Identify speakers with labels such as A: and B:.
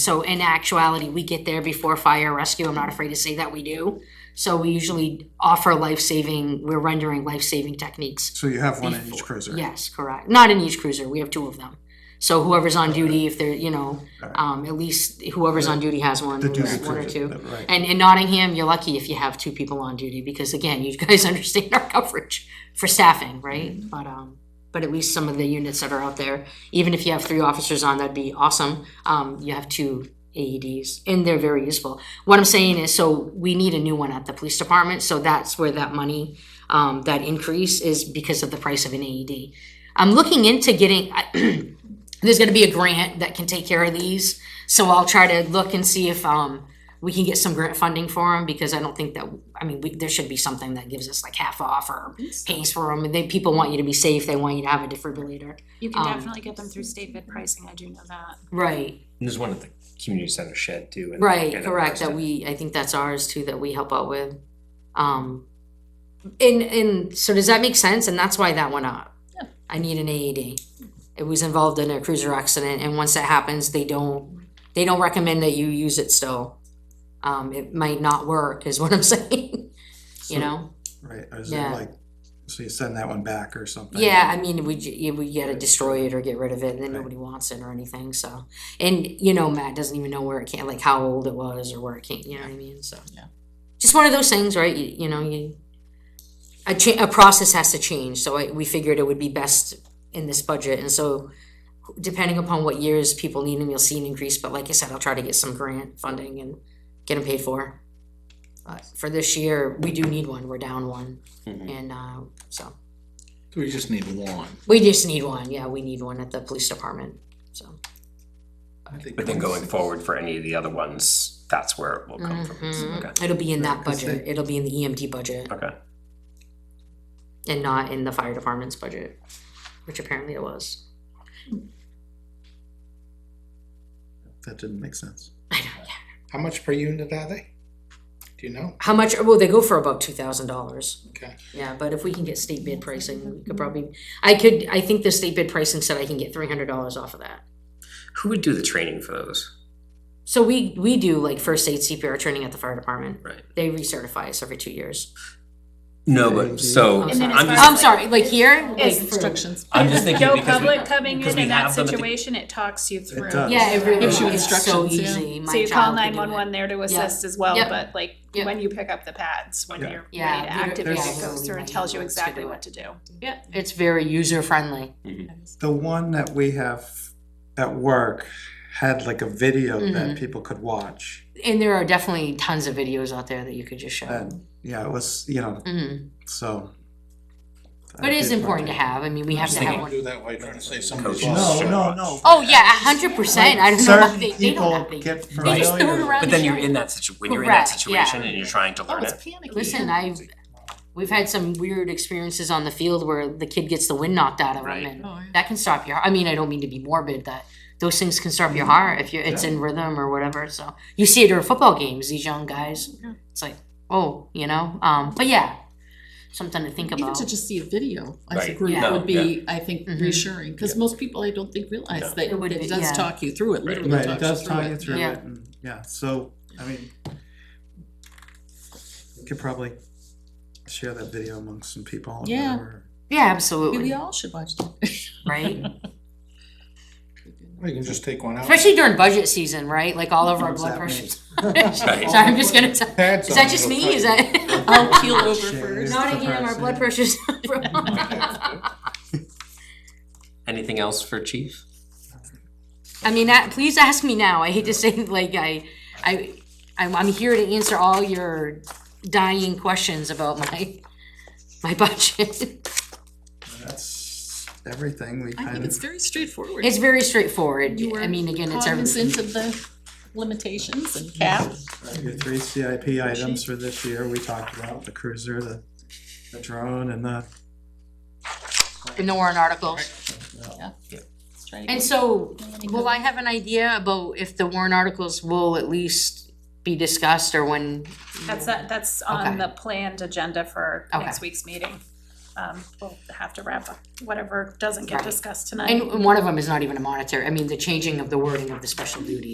A: So in actuality, we get there before fire rescue. I'm not afraid to say that we do. So we usually offer life-saving, we're rendering life-saving techniques.
B: So you have one in each cruiser?
A: Yes, correct. Not in each cruiser. We have two of them. So whoever's on duty, if they're, you know, um, at least whoever's on duty has one,
B: The duty
A: one or
B: cruiser,
A: two.
B: right.
A: And in Nottingham, you're lucky if you have two people on duty because again, you guys understand our coverage for staffing, right? But um, but at least some of the units that are out there, even if you have three officers on, that'd be awesome. Um, you have two AEDs and they're very useful. What I'm saying is, so we need a new one at the police department, so that's where that money, um, that increase is because of the price of an AED. I'm looking into getting, there's gonna be a grant that can take care of these, so I'll try to look and see if, um, we can get some grant funding for them, because I don't think that, I mean, we, there should be something that gives us like half off or pays for them, and they, people want you to be safe, they want you to have a defibrillator.
C: You can
A: Um,
C: definitely get them through state bid pricing, I do know that.
A: Right,
D: And There's one at the community center shed too. and-
A: Right,
D: and
A: correct, that we, I think that's ours too, that we help out with. Um, and, and, so does that make sense? And that's why that went up.
C: Yeah.
A: I need an AED. It was involved in a cruiser accident, and once that happens, they don't, they don't recommend that you use it still. Um, it might not work, is what I'm saying, you know?
B: Right, is it
A: Yeah.
B: like, so you send that one back or something?
A: Yeah, I mean, we, j- yeah, we gotta destroy it or get rid of it, and then nobody wants it or anything, so. And, you know, Matt doesn't even know where it came, like how old it was or where it came, you know what I mean, so.
E: Yeah.
A: Just one of those things, right, you, you know, you, a cha- a process has to change, so I, we figured it would be best in this budget, and so depending upon what years people need them, you'll see an increase, but like I said, I'll try to get some grant funding and get them paid for. But for this year, we do need one, we're down one,
E: Mm.
D: Mhm.
A: and, uh, so.
E: So we just need one.
A: We just need one, yeah, we need one at the police department, so.
D: But then going forward for any of the other ones, that's where it will come from. Okay.
A: It'll be in that
B: Right, 'cause
A: budget, it'll be in the EMT budget
D: Okay.
A: and not in the fire department's budget, which apparently it was.
B: That didn't make sense.
F: How much per unit are they? Do you know?
A: How much, well, they go for about two thousand dollars.
F: Okay.
A: Yeah, but if we can get state bid pricing, we could probably, I could, I think the state bid pricing said I can get three hundred dollars off of that.
D: Who would do the training for those?
A: So we, we do like first aid CPR training at the fire department.
D: Right.
A: They recertify us every two years.
D: No, but so
A: And then
D: I'm
C: as
D: just.
C: far
A: I'm sorry, like here?
C: It's
A: like for-
E: Instructions.
D: I'm just thinking
C: No
D: because we-
C: public coming
D: because
C: in
D: we
C: in that
D: have them at the-
C: situation, it talks you through.
B: does.
A: Yeah, it really
E: Gives you
A: is so
E: instructions, yeah.
A: easy. My
C: So you
A: child could
C: call
A: do
C: nine
A: it.
C: one one there to assist as well,
A: Yep.
C: but like
A: Yep.
C: when you pick up the pads, when
B: Yeah.
C: you're ready to
A: Yeah, there-
C: activate,
B: there's-
C: it goes through and tells you exactly what to do.
A: It's very user friendly.
B: The one that we have at work had like a video
A: Mm-hmm.
B: that people could watch.
A: And there are definitely tons of videos out there that you could just show.
B: And, yeah, it was, you know,
A: Mhm.
B: so.
A: But it is important to have. I mean, we have to have
D: thinking-
A: one.
F: Do that while you're trying to say something's
D: Coaches.
F: lost.
D: No, no, no.
A: Oh, yeah, a hundred percent. I don't know why
B: Certain
A: they, they don't have
B: people
A: the.
B: get
A: They just throw it
B: familiar.
A: around
D: But
A: and
D: then you're
A: share
D: in
A: it.
D: that situ, when you're in that
A: Correct, yeah.
D: situation and you're trying to
E: Oh,
D: learn
E: it's
D: it.
E: panicky. Oh,
A: Listen, I've, we've had some weird experiences on the field where the kid gets the wind knocked out of
D: Right.
A: him
E: Oh, yeah.
A: and that can stop your, I mean, I don't mean to be morbid, that those things can stop your heart if you're, it's in rhythm or whatever, so. You see it during football games, these young guys, it's like, oh, you know, um, but yeah, something to think
E: Even
A: about.
E: to just see a video as a
D: Right.
E: group
A: Yeah.
E: would be, I think,
A: Mhm.
E: reassuring, because most people, I don't think,
D: No.
E: realize that
A: It would be,
E: it
A: yeah.
E: does talk you through it,
D: Right.
E: literally
B: Right, it
E: talks
B: does
E: you
B: tie
E: through
B: you
E: it.
B: through
A: Yeah.
B: it, and, yeah, so, I mean. We could probably share that video amongst some people. or
E: Yeah.
B: whatever.
A: Yeah,
E: Maybe We
A: absolutely,
E: all should watch that.
A: right?
F: We can just take one out.
A: Especially during budget season, right? Like all of our
B: What's
A: blood
B: that
A: pressure.
B: mean?
A: Sorry, I'm just gonna, tell-
F: Pads
A: is that
F: on,
A: just
F: it'll
A: me? Is that?
E: I'll keel over
B: Share.
E: first.
A: Nottingham, our blood pressure's.
D: Anything else for chief?
A: I mean, that- please ask me now. I hate to say, like, I, I, I'm, I'm here to answer all your dying questions about my, my budget.
B: That's everything we
E: I
B: kind
E: think it's
B: of,
E: very straightforward.
A: It's very straightforward.
E: You were
A: I mean, again, it's everything.
E: Cognizant of the limitations and cap.
B: your three CIP items for this year, we talked about the cruiser, the, the drone and the.
A: In the Warren articles.
E: Let's try to
A: And
E: get-
A: so, will I have an idea about if the Warren articles will at least be discussed or when?
C: That's that, that's
A: Okay.
C: on the planned agenda for
A: Okay.
C: next week's meeting. Um, we'll have to wrap up whatever doesn't get
A: Right.
C: discussed tonight.
A: And one of them is not even a monetary, I mean, the changing of the wording of the special duty